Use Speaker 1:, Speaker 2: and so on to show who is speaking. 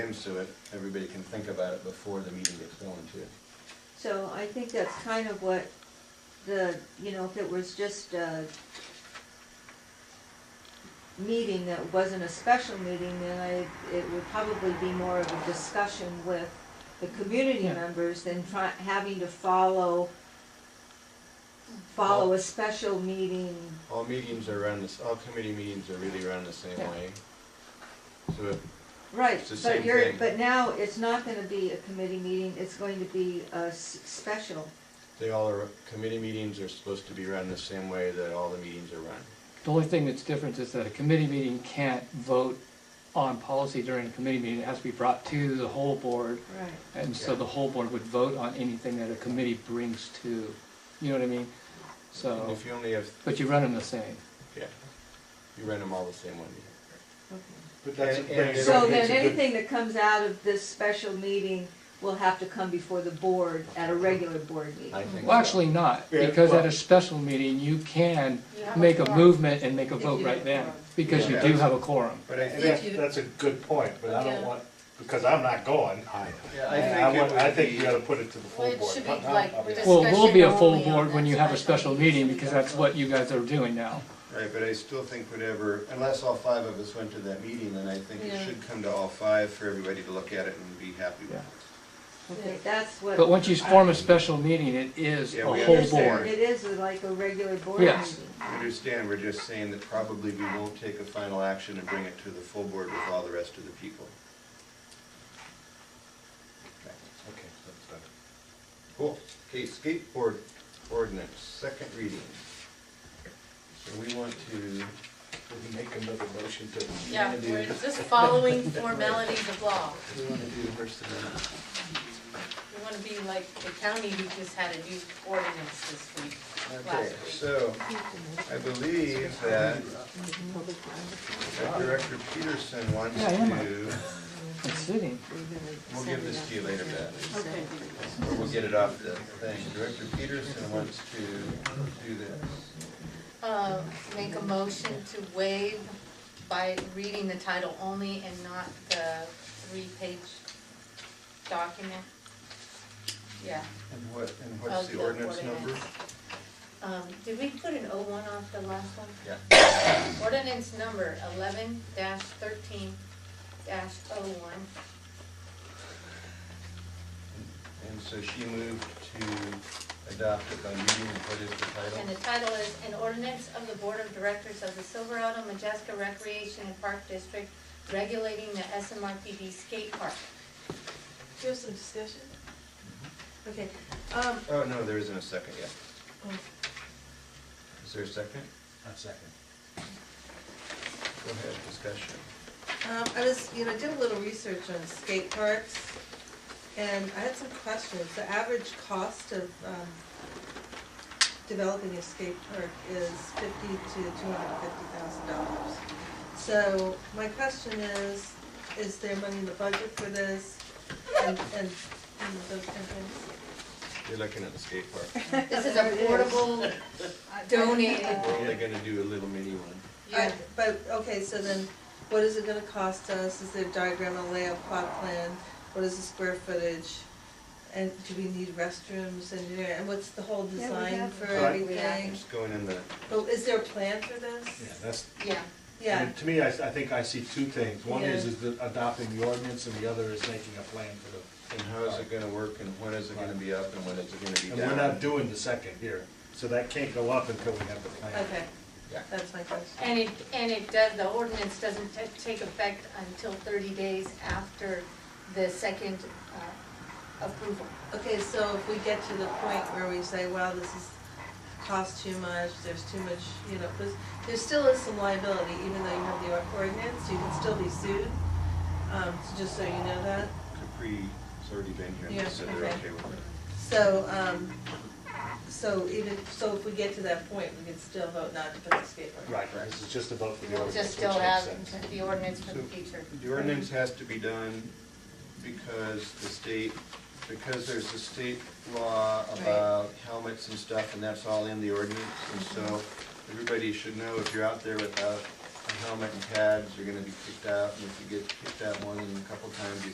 Speaker 1: names to it, everybody can think about it before the meeting gets going too.
Speaker 2: So I think that's kind of what the, you know, if it was just a meeting that wasn't a special meeting, then I, it would probably be more of a discussion with the community
Speaker 3: Yeah.
Speaker 2: members than try, having to follow, follow a special meeting.
Speaker 1: All meetings are run this, all committee meetings are really run the same
Speaker 3: Yeah.
Speaker 1: way. So it-
Speaker 2: Right,
Speaker 1: It's the
Speaker 2: but
Speaker 1: same
Speaker 2: you're,
Speaker 1: thing.
Speaker 2: but now it's not gonna be a committee meeting, it's going to be a s- special.
Speaker 1: they all are, committee meetings are supposed to be run the same way that all the meetings are run.
Speaker 3: The only thing that's different is that a committee meeting can't vote on policy during a committee meeting. It has to be brought to the whole board.
Speaker 2: Right.
Speaker 3: And so the whole board would vote on anything that a committee brings to, you know what I mean?
Speaker 1: And
Speaker 3: So,
Speaker 1: if you only have,
Speaker 3: but you run them the same.
Speaker 1: yeah, you run them all the same way.
Speaker 2: Okay.
Speaker 4: But that's,
Speaker 1: And-
Speaker 4: but
Speaker 1: and
Speaker 4: it's-
Speaker 2: So
Speaker 4: it's
Speaker 2: then
Speaker 4: a good-
Speaker 2: anything that comes out of this special meeting will have to come before the board at a regular board
Speaker 1: I
Speaker 2: meeting.
Speaker 1: think
Speaker 3: Well,
Speaker 1: so.
Speaker 3: actually not,
Speaker 4: Yeah,
Speaker 3: because at
Speaker 4: well-
Speaker 3: a special meeting, you can
Speaker 5: You have a
Speaker 3: make a
Speaker 5: quorum.
Speaker 3: movement and make a
Speaker 5: If
Speaker 3: vote
Speaker 5: you have
Speaker 3: right
Speaker 5: a
Speaker 3: then,
Speaker 5: quorum.
Speaker 3: because you
Speaker 1: Yeah.
Speaker 3: do have a quorum.
Speaker 4: But I- and
Speaker 5: If
Speaker 4: that's,
Speaker 5: you-
Speaker 4: that's a good point, but I don't
Speaker 5: Yeah.
Speaker 4: want, because I'm not going. I-
Speaker 1: Yeah,
Speaker 4: I want, I think we
Speaker 1: it
Speaker 4: ought to
Speaker 1: would
Speaker 4: put it to the full
Speaker 5: Well, it
Speaker 4: board.
Speaker 5: should be
Speaker 4: Not- not-
Speaker 5: like
Speaker 4: I mean,
Speaker 5: this-
Speaker 3: Well, it will be a full
Speaker 5: Discussion
Speaker 3: board when you have a
Speaker 5: only on that
Speaker 3: special
Speaker 5: special
Speaker 3: meeting,
Speaker 5: meeting.
Speaker 3: because that's what you guys are doing now.
Speaker 1: be- Right, but I still think whatever, unless all five of us went to that meeting, then I think it
Speaker 5: Yeah.
Speaker 1: should come to all five for everybody to look at it and be happy with.
Speaker 3: Yeah.
Speaker 2: Okay, that's what.
Speaker 3: But once you form a special meeting, it is a
Speaker 1: Yeah, we
Speaker 3: whole
Speaker 1: understand.
Speaker 3: board.
Speaker 2: It is like a regular board
Speaker 3: Yeah.
Speaker 2: meeting.
Speaker 1: I Understand, we're just saying that probably we won't take a final action and bring it to the full board with all the rest of the people. Okay.
Speaker 4: Okay, that's done.
Speaker 1: Cool. Okay, skateboard ordinance, second reading. So we want to,
Speaker 4: Did we make another motion to?
Speaker 5: Yeah, we're just following formalities of law.
Speaker 1: we want to do the first amendment.
Speaker 5: We wanna be like the county who just had a new ordinance this week,
Speaker 1: Okay,
Speaker 5: last week.
Speaker 1: so I believe that that Director Peterson wants
Speaker 3: Yeah, I am.
Speaker 1: to,
Speaker 3: It's sitting.
Speaker 1: we'll give this to you later, Beth,
Speaker 5: Okay.
Speaker 1: or we'll get it off the thing. Director Peterson wants to do this.
Speaker 5: Uh, make a motion to waive by reading the title only and not the three-page document. Yeah,
Speaker 1: And what, and what's
Speaker 5: Of
Speaker 1: the
Speaker 5: the
Speaker 1: ordinance number?
Speaker 5: ordinance. um, did we put an O one off the last one?
Speaker 1: Yeah.
Speaker 5: Ordinance number eleven thirteen dash oh one.
Speaker 1: And so she moved to adopt it by reading, what is the
Speaker 5: And
Speaker 1: title?
Speaker 5: the title is, An Ordinance of the Board of Directors of the Silverado Majeska Recreation and Park District Regulating the SMRPD Skate Park.
Speaker 6: Do you have some discussion? Okay, um,
Speaker 1: Oh, no, there isn't a second yet.
Speaker 6: oh,
Speaker 1: Is there a second?
Speaker 4: A second.
Speaker 1: Go ahead, discussion.
Speaker 6: um, I was, you know, I did a little research on skate parks, and I had some questions. The average cost of, um, developing a skate park is fifty to two hundred and fifty thousand dollars. So my question is, is there money in the budget for this? And, and, and those kind of things?
Speaker 1: You're looking at the skate park.
Speaker 5: This is affordable, donated.
Speaker 1: We're only gonna do a little mini one.
Speaker 6: I- But, okay, so then, what is it gonna cost us? Is there a diagram, a layout, plot plan? What is the square footage? And do we need restrooms and, you know, and what's the whole
Speaker 2: Yeah, we
Speaker 6: design
Speaker 2: have-
Speaker 6: for
Speaker 1: Right.
Speaker 6: everything?
Speaker 1: Just going in the,
Speaker 6: But is there a plan for
Speaker 4: Yeah,
Speaker 6: this?
Speaker 4: that's,
Speaker 5: Yeah,
Speaker 4: I
Speaker 6: Yeah,
Speaker 4: mean, to me, I, I think I see two things. One is,
Speaker 6: Yeah.
Speaker 4: is the- adopting the ordinance and the other is making a plan for the.
Speaker 1: and how is it gonna work and when is it gonna be up and when is it gonna be
Speaker 4: And
Speaker 1: down?
Speaker 4: we're not doing the second here, so that can't go up until we have the plan.
Speaker 6: okay,
Speaker 1: Yeah.
Speaker 6: that's my question.
Speaker 5: and it, and it does, the ordinance doesn't ta- take effect until thirty days after the second uh, approval.
Speaker 6: Okay, so if we get to the point where we say, wow, this is, costs too much, there's too much, you know, there's, there still is some liability, even though you have the ordinance, you can still be sued. Um, so just so you know that.
Speaker 1: Capri, it's already been here, and they
Speaker 6: Yeah,
Speaker 1: said they're
Speaker 6: okay.
Speaker 1: okay with it.
Speaker 6: So, um, so even, so if we get to that point, we can still vote not to put the skate park.
Speaker 4: Right, this is just about for the
Speaker 5: We'll
Speaker 4: ordinance.
Speaker 5: just still
Speaker 4: which makes
Speaker 5: have
Speaker 4: sense.
Speaker 5: the ordinance for the future.
Speaker 1: The ordinance has to be done because the state, because there's a state law about helmets and stuff, and that's all in the ordinance. And so
Speaker 6: Mm-hmm.
Speaker 1: everybody should know if you're out there without a helmet and pads, you're gonna be kicked out. And if you get kicked out more than a couple times, you